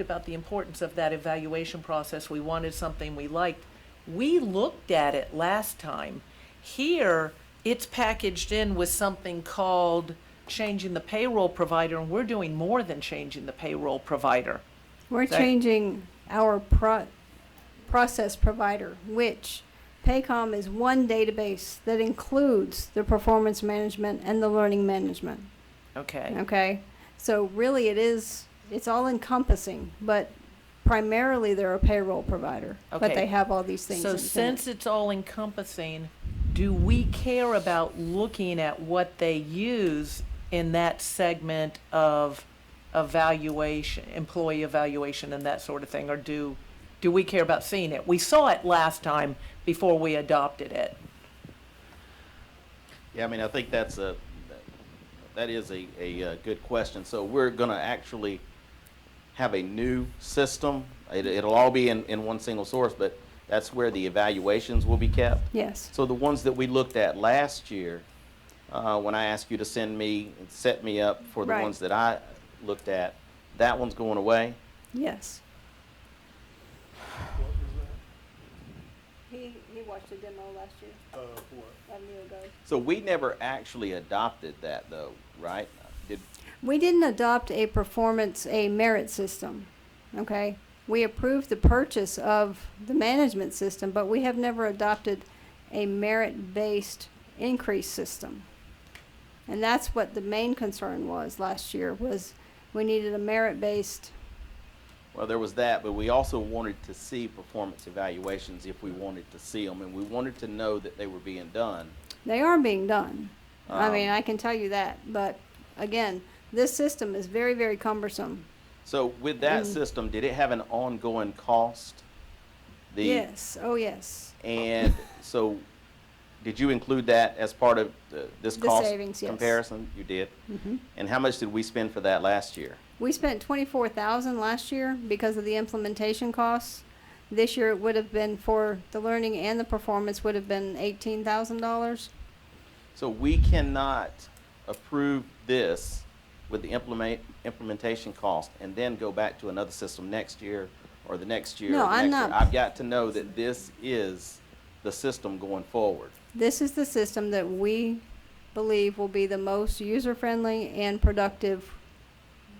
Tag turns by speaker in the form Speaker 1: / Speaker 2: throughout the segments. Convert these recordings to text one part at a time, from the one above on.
Speaker 1: about the importance of that evaluation process. We wanted something we liked. We looked at it last time. Here, it's packaged in with something called changing the payroll provider, and we're doing more than changing the payroll provider.
Speaker 2: We're
Speaker 1: That-
Speaker 2: changing our pro- process provider, which Paycom is one database that includes the performance management and the learning management.
Speaker 1: Okay.
Speaker 2: Okay, so really it is it's all encompassing, but primarily they're a payroll provider, but
Speaker 1: Okay.
Speaker 2: they have all these things.
Speaker 1: So
Speaker 2: in-
Speaker 1: since it's all encompassing, do we care about looking at what they use in that segment of evaluation, employee evaluation and that sort of thing? Or do, do we care about seeing it? We saw it last time before we adopted it.
Speaker 3: Yeah, I mean, I think that's a, that is a, a uh, good question. So we're gonna actually have a new system. It, it'll all be in, in one single source, but that's where the evaluations will be kept.
Speaker 2: yes,
Speaker 3: So the ones that we looked at last year, uh, when I asked you to send me, and set me up for the
Speaker 2: Right.
Speaker 3: ones that I looked at, that one's going away.
Speaker 2: yes. He he watched a demo last year, a year ago.
Speaker 3: So we never actually adopted that though, right? Did,
Speaker 2: We didn't adopt a performance, a merit system, okay? We approved the purchase of the management system, but we have never adopted a merit-based increase system. And that's what the main concern was last year, was we needed a merit-based,
Speaker 3: Well, there was that, but we also wanted to see performance evaluations if we wanted to see them, and we wanted to know that they were being done.
Speaker 2: they are being done. I mean,
Speaker 3: Um,
Speaker 2: I can tell you that, but again, this system is very, very cumbersome.
Speaker 3: So with that
Speaker 2: Mm.
Speaker 3: system, did it have an ongoing cost? The-
Speaker 2: Yes, oh yes,
Speaker 3: And so, did you include that as part of the, this
Speaker 2: The
Speaker 3: cost
Speaker 2: savings, yes.
Speaker 3: comparison? You did.
Speaker 2: Mm-hmm.
Speaker 3: And how much did we spend for that last year?
Speaker 2: We spent twenty-four thousand last year because of the implementation costs. This year it would have been for the learning and the performance would have been eighteen thousand dollars.
Speaker 3: So we cannot approve this with the implement, implementation cost and then go back to another system next year or the next year. or
Speaker 2: No,
Speaker 3: the
Speaker 2: I'm
Speaker 3: next year.
Speaker 2: not-
Speaker 3: I've got to know that this is the system going forward.
Speaker 2: This is the system that we believe will be the most user-friendly and productive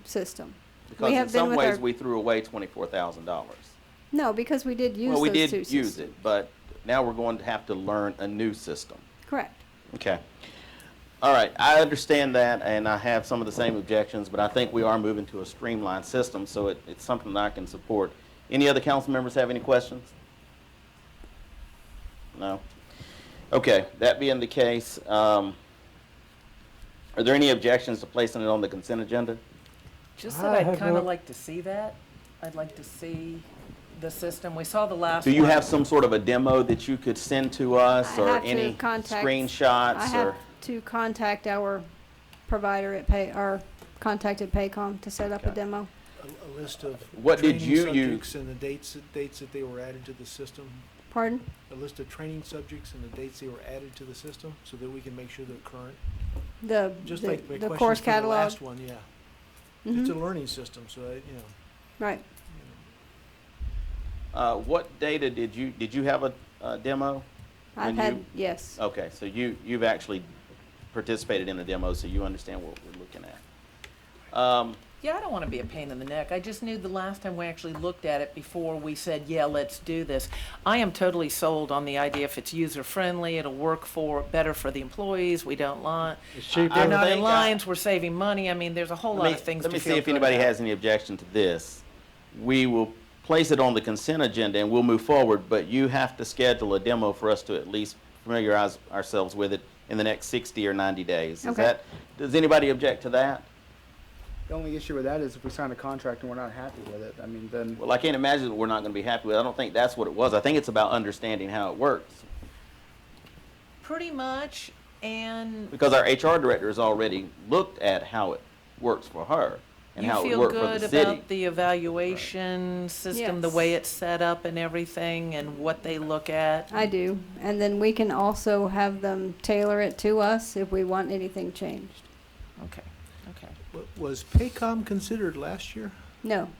Speaker 2: system.
Speaker 3: Because in
Speaker 2: have been
Speaker 3: some
Speaker 2: with
Speaker 3: ways,
Speaker 2: our-
Speaker 3: we threw away twenty-four thousand dollars.
Speaker 2: No, because we did use
Speaker 3: Well, we
Speaker 2: those
Speaker 3: did
Speaker 2: two
Speaker 3: use
Speaker 2: systems.
Speaker 3: it, but now we're going to have to learn a new system.
Speaker 2: Correct.
Speaker 3: Okay. All right, I understand that, and I have some of the same objections, but I think we are moving to a streamlined system, so it, it's something that I can support. Any other council members have any questions? No? Okay, that being the case, um, are there any objections to placing it on the consent agenda?
Speaker 1: Just
Speaker 4: I
Speaker 1: that I'd
Speaker 4: have
Speaker 1: kind of
Speaker 4: no-
Speaker 1: like to see that. I'd like to see the system. We saw the last
Speaker 3: Do you
Speaker 1: one.
Speaker 3: have some sort of a demo that you could send to us,
Speaker 2: I
Speaker 3: or
Speaker 2: have to
Speaker 3: any
Speaker 2: contact- I
Speaker 3: screenshots, or?
Speaker 2: have to contact our provider at Pay, or contact at Paycom to set up a
Speaker 3: Okay.
Speaker 2: demo.
Speaker 4: a, a list of
Speaker 3: What did
Speaker 4: training
Speaker 3: you
Speaker 4: subjects and the dates that, dates that they were added to the system.
Speaker 2: Pardon?
Speaker 4: A list of training subjects and the dates they were added to the system, so that we can make sure they're current.
Speaker 2: The,
Speaker 4: Just
Speaker 2: the
Speaker 4: like my
Speaker 2: the
Speaker 4: questions
Speaker 2: course
Speaker 4: from the
Speaker 2: catalog.
Speaker 4: last one, yeah. It's a
Speaker 2: Mhm.
Speaker 4: learning system, so I, you know.
Speaker 2: Right.
Speaker 3: Uh, what data did you, did you have a, a demo?
Speaker 2: I've
Speaker 3: when
Speaker 2: had,
Speaker 3: you- Oh.
Speaker 2: yes.
Speaker 3: Okay, so you, you've actually participated in the demo, so you understand what we're looking at. Um,
Speaker 1: Yeah, I don't want to be a pain in the neck. I just knew the last time we actually looked at it before we said, yeah, let's do this. I am totally sold on the idea if it's user friendly, it'll work for, better for the employees, we don't lie.
Speaker 3: I
Speaker 1: We're not in
Speaker 3: think I-
Speaker 1: lines, we're saving money. I mean, there's a whole
Speaker 3: let me-
Speaker 1: lot of things to
Speaker 3: Let me
Speaker 1: feel
Speaker 3: see if
Speaker 1: good
Speaker 3: anybody
Speaker 1: about.
Speaker 3: has any objection to this. We will place it on the consent agenda and we'll move forward, but you have to schedule a demo for us to at least familiarize ourselves with it in the next sixty or ninety days. Is
Speaker 2: Okay.
Speaker 3: that, does anybody object to that?
Speaker 5: The only issue with that is if we sign a contract and we're not happy with it, I mean, then,
Speaker 3: Well, I can't imagine that we're not gonna be happy with it. I don't think that's what it was. I think it's about understanding how it works.
Speaker 1: Pretty much, and
Speaker 3: because our HR director has already looked at how it works for her and
Speaker 1: you
Speaker 3: how it
Speaker 1: feel
Speaker 3: worked for
Speaker 1: good
Speaker 3: the city.
Speaker 1: about the evaluation system, the
Speaker 2: Yes.
Speaker 1: way it's set up and everything, and what they look at.
Speaker 2: I do. And then we can also have them tailor it to us if we want anything changed.
Speaker 1: Okay, okay.
Speaker 4: Wa- Was Paycom considered last year?
Speaker 2: No,